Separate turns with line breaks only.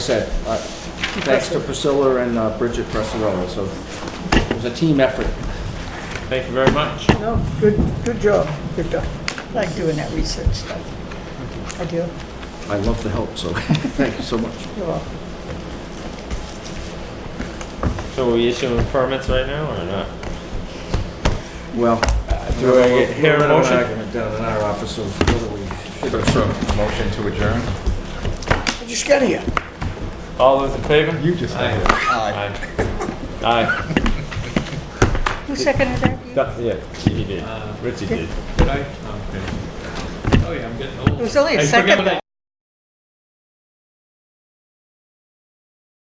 said, uh, thanks to Priscilla and uh, Bridget Presserella, so it was a team effort.
Thank you very much.
No, good, good job, good job. I like doing that research stuff. I do,
I love the help, so thank you so much.
you're welcome.
So are we issuing permits right now or not?
Well,
Do I get- hear a
we're in an
motion?
argument Down in our office of whether we should.
Motion to adjourn?
I just got here.
All those in favor?
You just had it.
Aye. Aye.
Who seconded that?
That- Yeah, he did. Richie did.
Did I? Okay. Oh, yeah, I'm getting old.
It was only a
Hey,
second
forget what I